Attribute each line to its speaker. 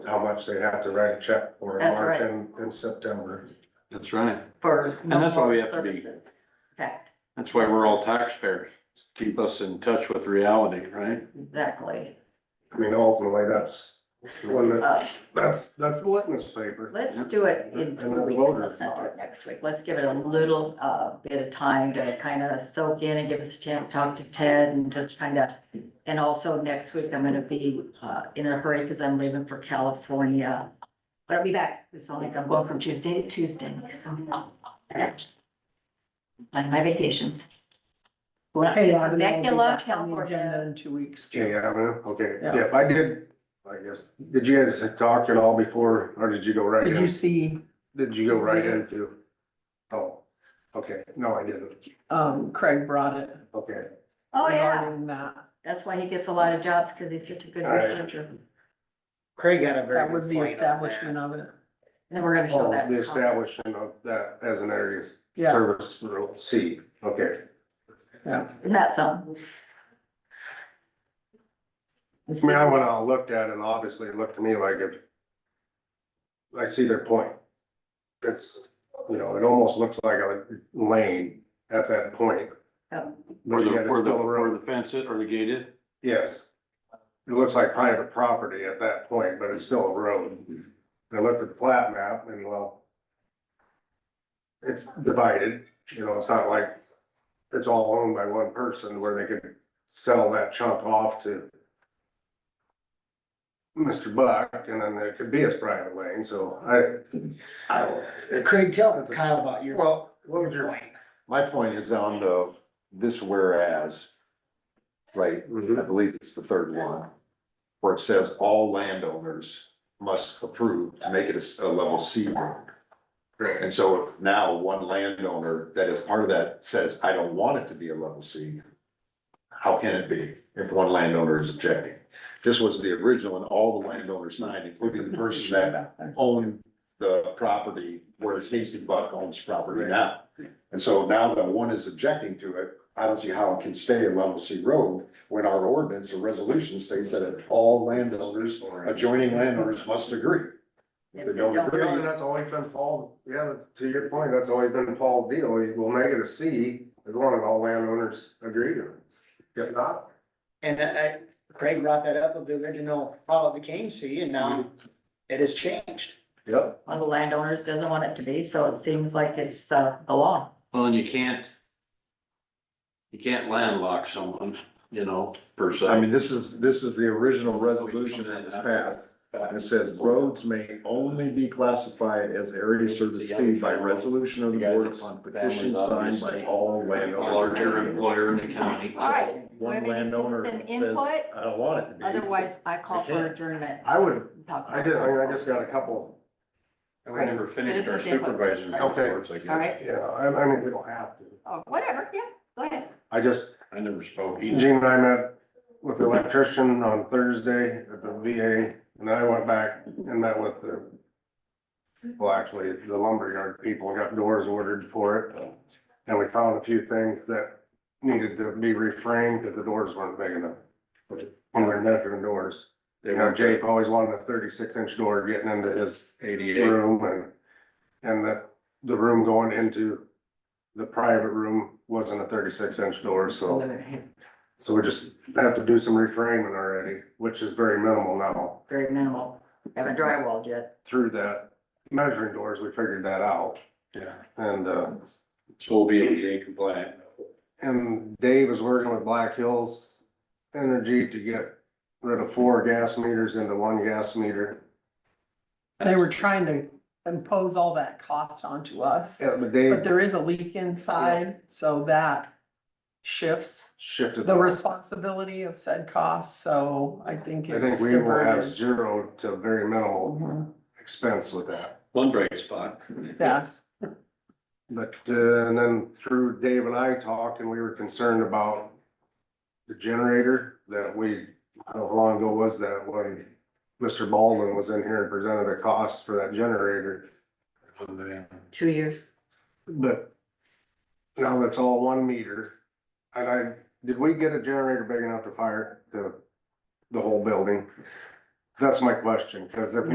Speaker 1: how much they have to write a check for in
Speaker 2: That's
Speaker 1: March
Speaker 2: right.
Speaker 1: and, and September.
Speaker 3: That's right.
Speaker 2: for
Speaker 3: And that's why we
Speaker 2: no-fault
Speaker 3: have to be-
Speaker 2: services. Fact,
Speaker 3: That's why we're all taxpayers. Keep us in touch with reality, right?
Speaker 2: exactly.
Speaker 1: I mean, ultimately, that's, when the-
Speaker 2: Uh,
Speaker 1: that's, that's the litmus paper.
Speaker 2: Let's do it in
Speaker 1: And
Speaker 2: two
Speaker 1: the
Speaker 2: weeks,
Speaker 1: voters
Speaker 2: let's not do
Speaker 1: thought.
Speaker 2: it next week, let's give it a little, uh, bit of time to kind of soak in and give us a chance to talk to Ted and just kind of. And also next week, I'm gonna be, uh, in a hurry because I'm leaving for California, but I'll be back, it's only, I'm going from Tuesday to Tuesday, so. On my vacations. Well,
Speaker 4: Hey, I would
Speaker 2: Becky
Speaker 4: be
Speaker 2: Love,
Speaker 4: back on the agenda
Speaker 2: California,
Speaker 4: in two weeks.
Speaker 1: Yeah, I know. okay,
Speaker 4: Yeah.
Speaker 1: yeah, I did, I guess, did you guys talk at all before, or did you go right
Speaker 4: Did you
Speaker 1: in?
Speaker 4: see,
Speaker 1: Did you go right into? Oh, okay, no, I didn't,
Speaker 4: um, Craig brought it.
Speaker 1: okay.
Speaker 2: oh, yeah,
Speaker 4: regarding That,
Speaker 2: that's why he gets a lot of jobs, because he's such a good
Speaker 1: All right.
Speaker 2: researcher, and
Speaker 5: Craig had a very.
Speaker 4: that
Speaker 5: good
Speaker 4: was the
Speaker 5: point on
Speaker 4: establishment
Speaker 5: that.
Speaker 4: of it.
Speaker 2: then we're gonna show
Speaker 1: Oh,
Speaker 2: that.
Speaker 1: the establishment of that as an area of
Speaker 4: Yeah,
Speaker 1: service, rule C, okay.
Speaker 4: yeah.
Speaker 2: Isn't that something?
Speaker 1: I mean, I went out and looked at it, and obviously it looked to me like it. I see their point. It's, you know, it almost looks like a lane at that point.
Speaker 2: Oh.
Speaker 3: Where
Speaker 1: But
Speaker 3: the,
Speaker 1: yet it's
Speaker 3: where the,
Speaker 1: still a
Speaker 3: where
Speaker 1: road,
Speaker 3: the fence is or the gate is.
Speaker 1: yes. It looks like private property at that point, but it's still a road. And I looked at the plat map and well. It's divided, you know, it's not like it's all owned by one person where they could sell that chunk off to Mr. Buck, and then there could be his private lane, so I,
Speaker 5: I- Uh, Craig, tell Kyle about your.
Speaker 1: well,
Speaker 5: What was your point?
Speaker 6: My point is on the, this whereas, right, I believe it's the third one, where it says all landowners must approve to make it a s- a, level C road.
Speaker 1: Mm-hmm.
Speaker 6: And so if now one landowner that is part of that says, I don't want it to be a level C, how can it be if one landowner is objecting? This was the original and all the landowners signed, including the person that own the property where Casey Buck owns property now. And so now that one is objecting to it, I don't see how it can stay a level C road when our ordinance or resolution states that all landowners, adjoining landowners must agree. If they don't agree,
Speaker 1: Yeah, and that's always been Paul, yeah, to your point, that's always been Paul's deal, he will make it a C as long as all landowners agree to it. If not,
Speaker 5: And I, I- Craig brought that up of the original follow the cane C and now it has changed.
Speaker 1: Yep.
Speaker 2: One of the landowners doesn't want it to be, so it seems like it's, uh, the law.
Speaker 3: Well, and you can't, you can't landlock someone, you know, per se.
Speaker 6: I mean, this is, this is the original resolution that was passed. And it says roads may only be classified as area service C by resolution of the board upon petition signed by
Speaker 3: A
Speaker 6: all landowners.
Speaker 3: larger employer in the county.
Speaker 2: All right,
Speaker 6: One landowner
Speaker 2: An
Speaker 6: says,
Speaker 2: input,
Speaker 6: I don't want it to be.
Speaker 2: otherwise I call for adjournment.
Speaker 1: I would,
Speaker 2: Talk
Speaker 1: I
Speaker 2: about
Speaker 1: did,
Speaker 2: it.
Speaker 1: I mean, I just got a couple,
Speaker 3: We never finished our supervisor's
Speaker 1: Okay.
Speaker 3: reports, I guess.
Speaker 2: All right.
Speaker 1: yeah, I, I mean, we don't have to.
Speaker 2: Oh, whatever, yeah, go ahead.
Speaker 1: I just,
Speaker 3: I never spoke either.
Speaker 1: Gene E and I met with the electrician on Thursday at the VA, and then I went back and met with the. Well, actually, the lumberyard people and got doors ordered for it, and we found a few things that needed to be reframed, because the doors weren't big enough. When we're measuring doors,
Speaker 3: They
Speaker 1: you know,
Speaker 3: were
Speaker 1: Jake always wanted a thirty-six inch door getting into his
Speaker 3: eighty-eight.
Speaker 1: room and, and that the room going into the private room wasn't a thirty-six inch door, so, so we just have to do some reframing already, which is very minimal now.
Speaker 2: Very minimal, haven't drywalled yet.
Speaker 1: Through that measuring doors, we figured that out
Speaker 3: Yeah.
Speaker 1: and, uh,
Speaker 3: So we'll be ADA compliant.
Speaker 1: and Dave is working with Black Hills Energy to get rid of four gas meters into one gas meter.
Speaker 4: They were trying to impose all that cost onto us,
Speaker 1: Yeah, but
Speaker 4: but
Speaker 1: Dave
Speaker 4: there is a leak inside, so that shifts
Speaker 1: shifted.
Speaker 4: the responsibility of said costs, so I think
Speaker 1: I
Speaker 4: it's.
Speaker 1: think we will have
Speaker 4: diverted.
Speaker 1: zero to very minimal
Speaker 4: Mhm,
Speaker 1: expense with that.
Speaker 3: One bright spot.
Speaker 4: Yes,
Speaker 1: But, uh, and then through Dave and I talking, we were concerned about the generator that we, how long ago was that when Mr. Baldwin was in here and presented a cost for that generator,
Speaker 3: Oh,
Speaker 2: Two years,
Speaker 1: but now that's all one meter. And I, did we get a generator big enough to fire the, the whole building? That's my question, cause if